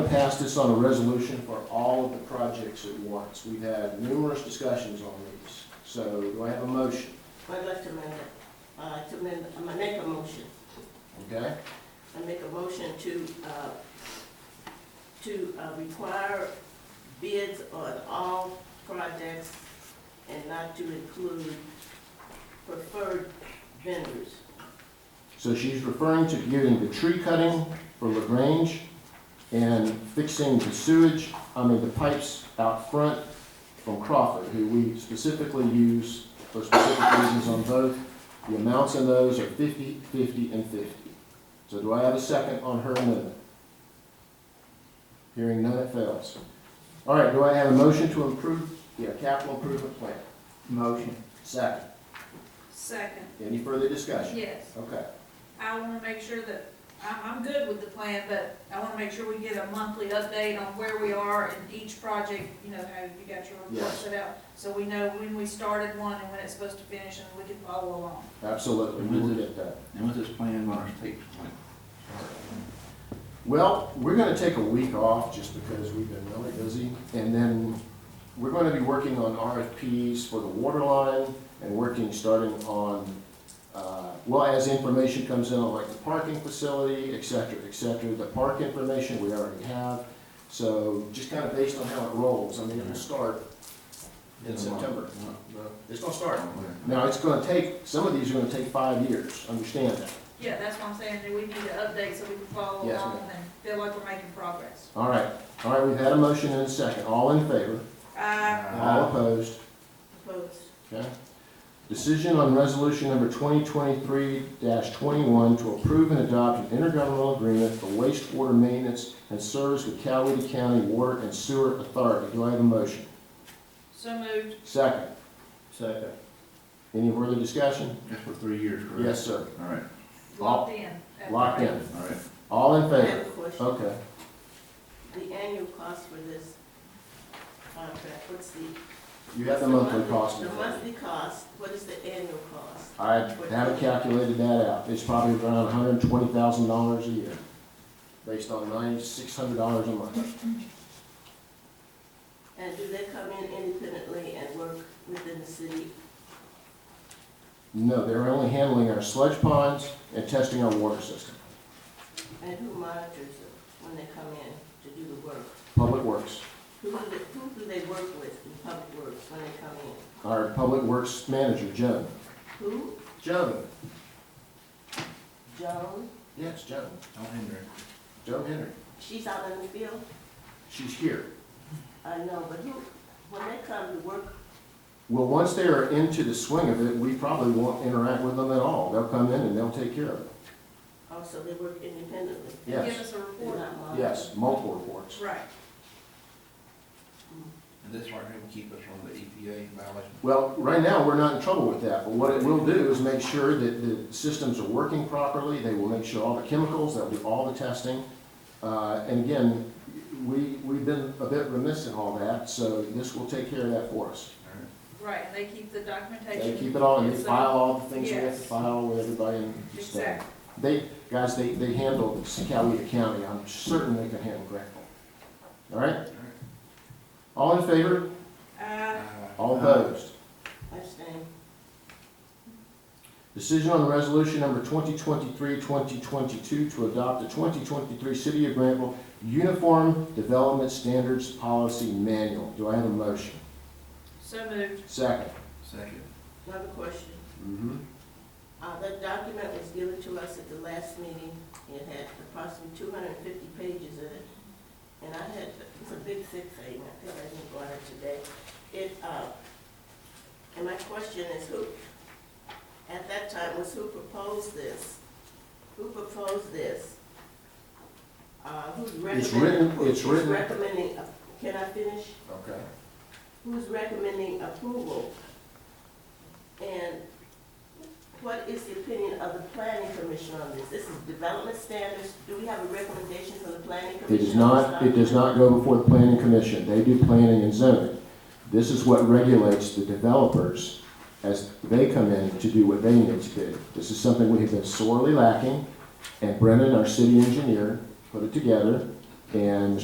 pass this on a resolution for all of the projects at once. We've had numerous discussions on these. So do I have a motion? I'd like to amend it. I'd like to amend, I'm gonna make a motion. Okay? I make a motion to, uh, to uh, require bids on all projects and not to include preferred vendors. So she's referring to getting the tree cutting for LaGrange and fixing the sewage, I mean, the pipes out front from Crawford, who we specifically use for specific reasons on both. The amounts in those are 50, 50, and 50. So do I have a second on her amendment? Hearing none, it fails. All right, do I have a motion to improve, yeah, capital improvement plan? Motion. Second. Second, Any further discussion? yes. Okay. I want to make sure that, I'm, I'm good with the plan, but I want to make sure we get a monthly update on where we are in each project, you know, how you got your report Yes. set out. So we know when we started one and when it's supposed to finish and we can follow along. Absolutely, we will get that. And what's this plan on our state plan? Well, we're gonna take a week off just because we've been really busy, and then we're gonna be working on RFPs for the water line and working, starting on, uh, well, as information comes in, on like the parking facility, et cetera, et cetera. The park information we already have, so just kind of based on how it rolls, I mean, it will start in September. It's gonna start. Now, it's gonna take, some of these are gonna take five years, understand that. Yeah, that's what I'm saying, that we need to update so we can follow Yes, along and feel like we're making progress. All right, all right, we've had a motion and a second, all in favor? Uh, All opposed, Opposed? okay? Decision on resolution number 2023-21 to approve and adopt an intergovernmental agreement for wastewater maintenance and service with Coweta County Water and Sewer Authority. Do I have a motion? so moved, Second. Second. Any further discussion? That's for three years, correct? Yes, sir. All right, locked in. Locked in. all right. All in I have favor? a question. Okay. The annual cost for this contract, what's the? You have the monthly cost. The monthly cost, what is the annual cost? I haven't calculated that out. It's probably around $120,000 a year, based on $9,600 a month. And do they come in independently and work within the city? No, they're only handling our sludge ponds and testing our water system. And who monitors them when they come in to do the work? Public Works. Who do they, who do they work with in public works when they come in? Our Public Works Manager, Joan. Who? Joan? Joan? Yes, Joan. Don't hinder it. Joan Henry. She's out in the field? She's here. I know, but who, when they come to work, Well, once they are into the swing of it, we probably won't interact with them at all. They'll come in and they'll take care of it. also they work independently? Give Yes, us a They're report. not monitored? yes, multiple reports. Right. And this right here will keep us from the EPA violation. Well, right now, we're not in trouble with that, but what it will do is make sure that the systems are working properly. They will make sure all the chemicals, they'll do all the testing. Uh, And again, we, we've been a bit remiss in all that, so this will take care of that for us. All right. Right, and they keep the documentation. They keep it all, they file all the things we have to Yes. file with everybody and stuff. Exactly. They, guys, they, they handle Coweta County, I'm certain they can handle Granville. All right? All in favor? Uh, All opposed? I'm staying. Decision on resolution number 2023-2022 to adopt the 2023 City of Granville Uniform Development Standards Policy Manual. Do I have a motion? so moved, 2nd Uh, Second. Another question. Uh, that document was given to us at the last meeting. It had approximately two hundred and fifty pages in it. And I had, it was a big thick thing, I think I didn't go on it today. It, uh, and my question is who, at that time, was who proposed this? Who proposed this? Uh, who's It's recommending? written- it's who's written- recommending, uh, can I finish? Okay. who's recommending approval? And what is the opinion of the planning commission on this? This is development standards, do we have a recommendation from the planning It commission? does not, it does not go before the planning commission. They do planning and zoning. This is what regulates the developers as they come in to do what they need to do. This is something we have been sorely lacking, and Brennan, our city engineer, put it together, and